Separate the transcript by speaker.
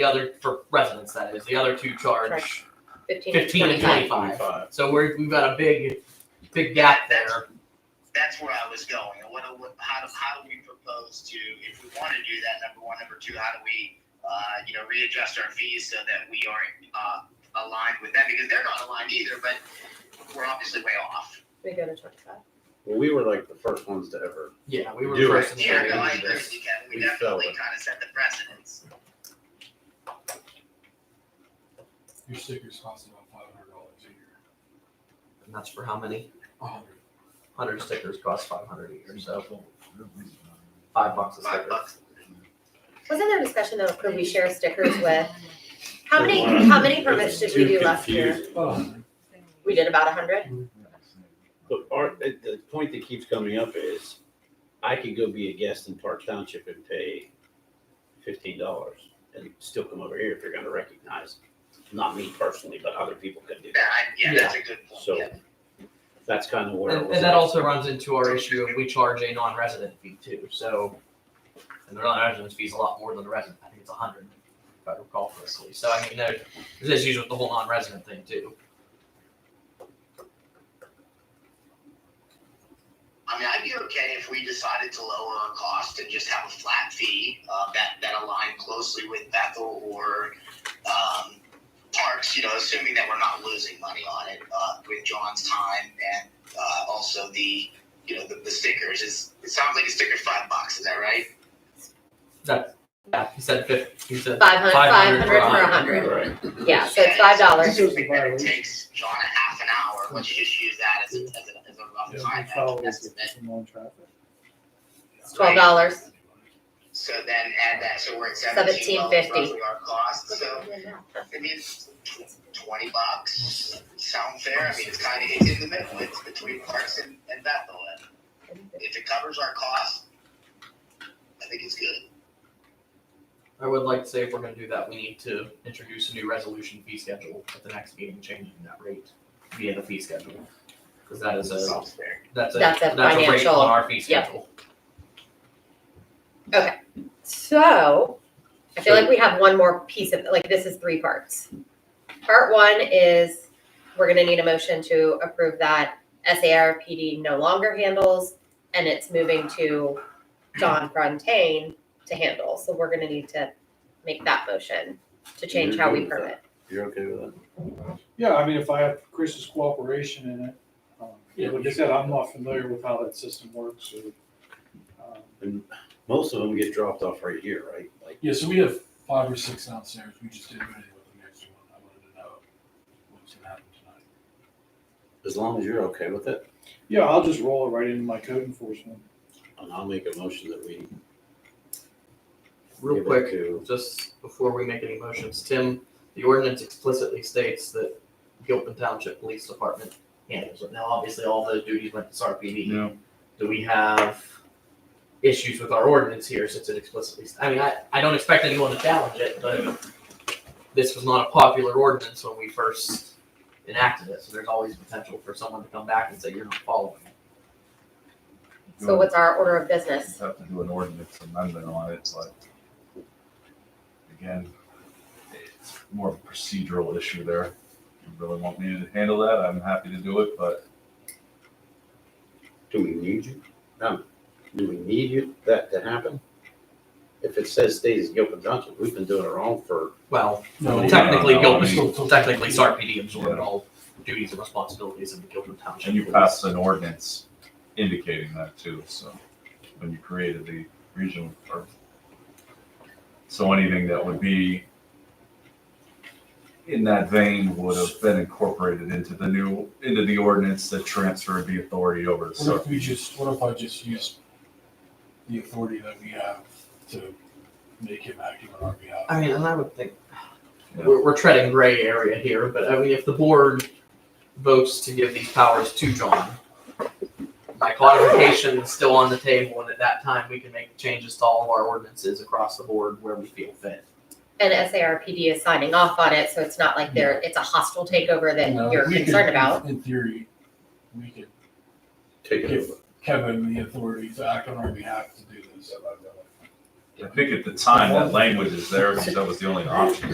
Speaker 1: The other for residents, that is. The other two charge
Speaker 2: Fifteen.
Speaker 1: fifteen and twenty-five. So we're we've got a big, big gap there.
Speaker 3: that's where I was going. And what, what how do how do we propose to if we want to do that? Number one, number two, how do we uh, you know readjust our fees so that we aren't uh, aligned with that because they're not aligned either, but we're obviously way off.
Speaker 2: We go to twenty-five.
Speaker 4: Well, we were like the first ones to ever.
Speaker 1: Yeah, we were
Speaker 4: Do
Speaker 1: first in the
Speaker 3: Yeah,
Speaker 4: we
Speaker 3: no, I
Speaker 1: area.
Speaker 3: agree with you, Kevin. We
Speaker 4: we fell
Speaker 3: definitely
Speaker 4: with-
Speaker 3: kind of set the precedence.
Speaker 5: Your sticker's costing about five hundred dollars a year.
Speaker 1: And that's for how many?
Speaker 5: A hundred.
Speaker 1: Hundred stickers cost five hundred a year, so five bucks a
Speaker 3: Five
Speaker 1: sticker.
Speaker 3: bucks.
Speaker 2: Wasn't there discussion though, could we share stickers with, how many,
Speaker 4: Well,
Speaker 2: how many permits did we do last year?
Speaker 5: Oh,
Speaker 2: We did about a hundred?
Speaker 4: But our, the, the point that keeps coming up is, I could go be a guest in Park Township and pay fifteen dollars and still come over here if you're gonna recognize, not me personally, but other people could do
Speaker 3: Yeah,
Speaker 4: that.
Speaker 3: I, yeah, that's a good point.
Speaker 4: So
Speaker 3: yeah.
Speaker 4: that's kind of where. it
Speaker 1: And,
Speaker 4: was
Speaker 1: and that
Speaker 4: at.
Speaker 1: also runs into our issue of we charge a non-resident fee too, so. And the non-resident fee is a lot more than the resident, I think it's a hundred, if I recall correctly, so I mean, there- there's issues with the whole non-resident thing too.
Speaker 3: I mean, I'd be okay if we decided to lower our cost and just have a flat fee uh, that that aligned closely with Bethel or um, Parks. You know, assuming that we're not losing money on it uh, with John's time and uh, also the you know the, the stickers. Is it sounds like a sticker five bucks? Is that right?
Speaker 1: Yeah, he said fif, he said,
Speaker 2: Five hundred, five
Speaker 1: 500
Speaker 2: hundred for a hundred,
Speaker 4: Right,
Speaker 2: yeah, so it's five dollars.
Speaker 3: I think that it takes John a half an hour. Let's just use that as a, as a, as a rough time estimate.
Speaker 2: It's twelve dollars.
Speaker 3: So then add that. So we're at seventeen
Speaker 2: Seventeen
Speaker 3: dollars
Speaker 2: fifty.
Speaker 3: roughly our cost. So. I mean, it's tw- twenty bucks sound fair. I mean, it's kind of it's in the middle. It's between Parks and, and Bethel. And if it covers our costs, I think it's good.
Speaker 1: I would like to say if we're gonna do that, we need to introduce a new resolution fee schedule at the next meeting, changing that rate via the fee schedule. Cause that is a,
Speaker 3: Sounds fair.
Speaker 1: that's a,
Speaker 2: That's
Speaker 1: that's
Speaker 2: a
Speaker 1: a rate
Speaker 2: financial-
Speaker 1: on our fee
Speaker 2: yep.
Speaker 1: schedule.
Speaker 2: So, I feel like we have one more piece of, like, this is three parts. Part one is, we're gonna need a motion to approve that SARPD no longer handles, and it's moving to John Frontain to handle, so we're gonna need to make that motion to change how we permit.
Speaker 4: you're okay with that?
Speaker 6: Yeah, I mean, if I have Chris's cooperation in it, um, like I said, I'm not familiar with how that system works or. um,
Speaker 4: And most of them get dropped off right here, right? Like,
Speaker 5: Yeah, so we have five or six downstairs. We just didn't do anything with the next one. I wanted to know what was gonna happen tonight.
Speaker 4: as long as you're okay with it,
Speaker 6: Yeah, I'll just roll it right into my code enforcement.
Speaker 4: and I'll make a motion that we.
Speaker 1: Real
Speaker 4: give it
Speaker 1: quick,
Speaker 4: to-
Speaker 1: just before we make any motions, Tim, the ordinance explicitly states that Gilpin Township Police Department handles it. Now, obviously, all those duties went to SRPD. Do we have issues with our ordinance here since it explicitly, I mean, I, I don't expect anyone to challenge it, but this was not a popular ordinance when we first enacted it, so there's always potential for someone to come back and say, you're not following it.
Speaker 2: So what's our order of business?
Speaker 7: Have to do an ordinance amendment on it, but again, it's more of a procedural issue there. If You really want me to handle that? I'm happy to do it, but
Speaker 4: Do we need you? No. Do we need you, that to happen? If it says stays as Gilpin Township, we've been doing it wrong for,
Speaker 1: Well,
Speaker 7: No,
Speaker 1: technically,
Speaker 7: no, no, I
Speaker 1: Gilpin,
Speaker 5: mean-
Speaker 1: technically, SRPD absorbed
Speaker 7: Yeah.
Speaker 1: all duties and responsibilities of the Gilpin Township.
Speaker 7: and you
Speaker 1: Police.
Speaker 7: passed an ordinance indicating that too, so when you created the regional or so anything that would be in that vein would have been incorporated into the new, into the ordinance that transferred the authority over to
Speaker 5: What if we
Speaker 7: SRPD.
Speaker 5: just, what if I just use the authority that we have to make him active on our behalf?
Speaker 1: I mean, and I would think
Speaker 7: Yeah.
Speaker 1: we're, we're treading gray area here, but I mean, if the board votes to give these powers to John, by codification is still on the table, and at that time, we can make changes to all of our ordinances across the board where we feel fit.
Speaker 2: And SARPD is signing off on it, so it's not like they're, it's a hostile takeover
Speaker 5: You know,
Speaker 2: that you're
Speaker 5: we could-
Speaker 2: concerned about.
Speaker 5: In theory, we could
Speaker 4: take it
Speaker 5: give
Speaker 4: over.
Speaker 5: Kevin the authority to act on our behalf to do this.
Speaker 7: I think at the time, that language is there because that was the only option.